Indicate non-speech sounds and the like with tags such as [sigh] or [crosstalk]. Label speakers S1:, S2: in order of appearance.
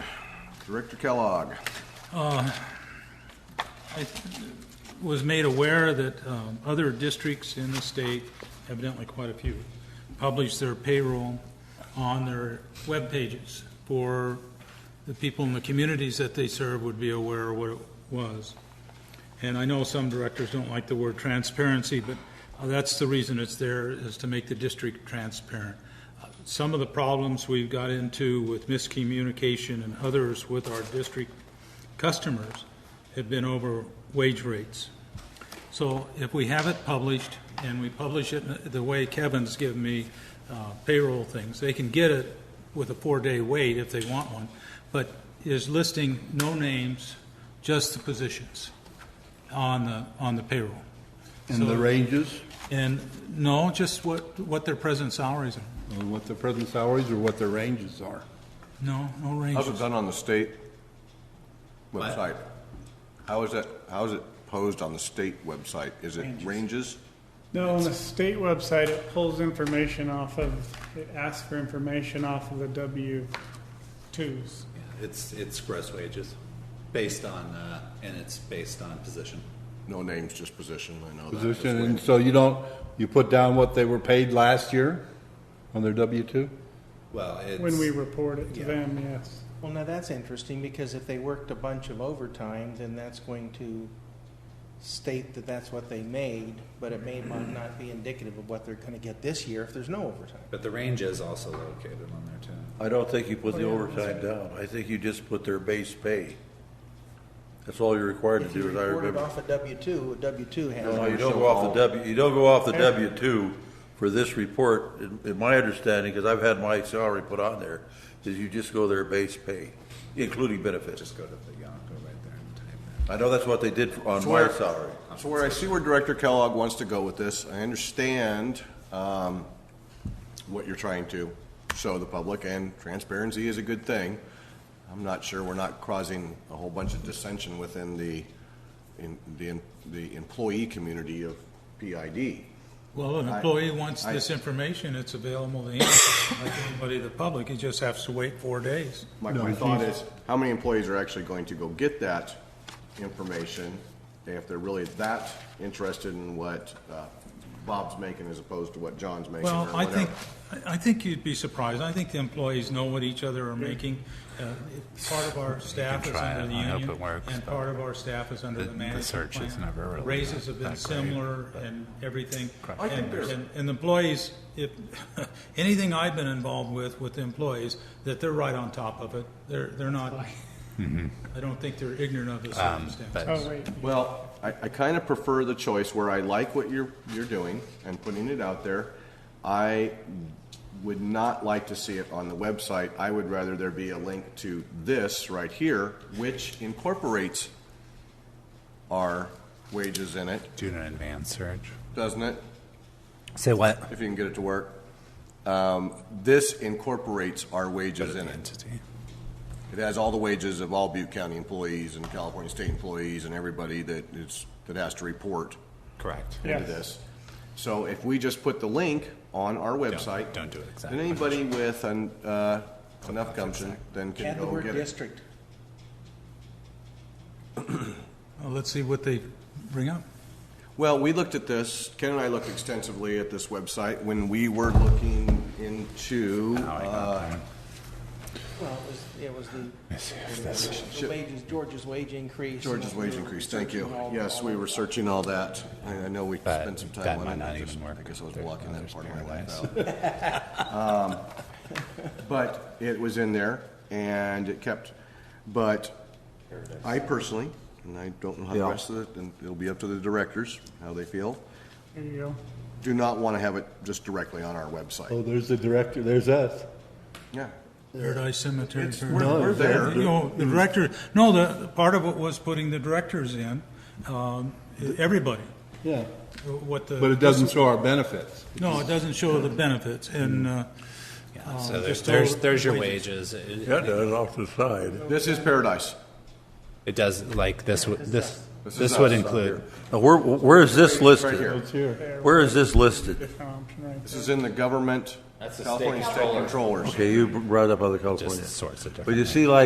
S1: Director Kellogg.
S2: I was made aware that um, other districts in the state, evidently quite a few, publish their payroll on their web pages for the people in the communities that they serve would be aware of what it was. And I know some directors don't like the word transparency, but uh, that's the reason it's there, is to make the district transparent. Uh, Some of the problems we've got into with miscommunication and others with our district customers have been over wage rates. So if we have it published, and we publish it the way Kevin's given me uh, payroll things, they can get it with a four-day wait if they want one, but is listing no names, just the positions on the, on the payroll.
S3: And the
S2: So-
S3: ranges,
S2: And no, just what, what their present salaries are.
S3: or uh, what their present salaries or what their ranges are.
S2: No,
S1: How's
S2: no
S1: it
S2: ranges.
S1: done on the state website? How is that, how is it posed on the state website? Is it ranges?
S4: No, on the state website, it pulls information off of, it asks for information off of the W twos.
S5: It's, it's gross wages, based on, uh, and it's based on position.
S1: No names, just position, I know that. Just
S3: Position,
S1: wait.
S3: and so you don't, you put down what they were paid last year on their W-2?
S5: Well, it's.
S4: When we report it to
S5: yeah.
S4: them, yes.
S6: Well, now that's interesting because if they worked a bunch of overtime, then that's going to state that that's what they made, but it may might not be indicative of what they're going to get this year if there's no overtime.
S5: But the range is also located on there too.
S7: I don't think you put the overtime down. I think you just put their base pay. That's all you're required to
S6: If you
S7: do, as I
S6: report it
S7: remember.
S6: off a W two, a W two has.
S7: No,
S6: it.
S7: you don't go off the W, you don't go off the W two for this report, in, in my understanding, because I've had my salary put on there, is you just go their base pay, including benefits.
S5: Just go to the, yeah, go right there and type
S7: I know that's what they did for- on
S1: So
S7: my
S1: where-
S7: salary.
S1: So where I see where Director Kellogg wants to go with this, I understand um, what you're trying to show the public, and transparency is a good thing. I'm not sure we're not causing a whole bunch of dissension within the, in the, the employee community of PID.
S2: Well, an employee wants this information, it's available to him, like anybody, in the public, he just has to wait four days.
S1: My, my thought is, how many employees are actually going to go get that information if they're really that interested in what uh, Bob's making as opposed to what John's making or
S2: Well, I
S1: whatever?
S2: think, I I think you'd be surprised. I think the employees know what each other are making. Uh, if Part of our staff is
S8: try
S2: under the
S8: it. I hope
S2: union,
S8: it works,
S2: and
S8: but
S2: part of our staff is under
S8: the-
S2: the
S8: the
S2: management
S8: search is
S2: plan.
S8: never really
S2: Raises have been
S8: that great,
S2: similar and everything.
S1: I think
S2: And-
S1: there's-
S2: And and the employees, if, [laughs] anything I've been involved with, with the employees, that they're right on top of it. They're, they're not, I don't think they're ignorant of the circumstance.
S8: Um, But
S4: Oh, wait,
S1: Well, I, I kind of prefer the choice where I like what you're, you're doing and putting it out there. I would not like to see it on the website. I would rather there be a link to this right here, which incorporates our wages in it,
S8: do an advanced search.
S1: doesn't it?
S8: Say what?
S1: If you can get it to work. Um, this incorporates our wages in it.
S8: Entity.
S1: It has all the wages of all Butte County employees and California state employees and everybody that is, that has to report.
S8: Correct.
S1: into
S4: Yes.
S1: this. So if we just put the link on our website.
S8: don't do it exactly.
S1: Then anybody with an, uh, enough gumption then can
S6: Add the
S1: go
S6: word
S1: get it.
S6: district.
S2: Well, Let's see what they bring up.
S1: Well, we looked at this, Ken and I looked extensively at this website when we were looking into,
S8: Oh, I
S1: uh,
S8: got that.
S6: Well, it was,
S8: see
S6: it was the, the wages, George's wage increase.
S1: George's wage increase, thank you. Yes, we were searching all that. I, I know we
S8: But
S1: spent some
S8: that
S1: time on it.
S8: might not
S1: I just-
S8: even work.
S1: I guess I was
S8: There's
S1: blocking that
S8: others
S1: part of my
S8: paradise.
S1: life out.
S8: [laughs]
S1: Um, [laughs] But it was in there and it kept, but I personally, and I don't know how the rest of it, and it'll be up to the directors, how they feel,
S4: there you go.
S1: do not want to have it just directly on our
S8: Oh.
S1: website.
S3: Oh, there's the director, there's us.
S1: Yeah.
S2: Paradise Cemetery.
S1: It's-
S2: Paradise.
S1: we're- No, we're there.
S2: You know, the director, no, the, part of it was putting the directors in, um, everybody,
S3: Yeah,
S2: what the.
S3: but it doesn't show our benefits.
S2: No, it doesn't show the benefits, and, uh,
S8: Yeah, so there's,
S2: just
S8: there's,
S2: all
S8: there's your wages. It,
S7: Yeah, that's off the side.
S1: This is paradise.
S8: it does, like, this, would- this,
S1: This is
S8: this would
S1: us up
S8: include,
S7: Now, where, where is this
S1: Right
S7: listed?
S1: here.
S3: here.
S7: Where is this listed?
S4: Different option right
S1: This is in the government,
S5: That's the state
S1: California State Controllers.
S7: Okay, you brought up other California.
S8: just sorts of different.
S7: But you
S8: things.
S7: see, like,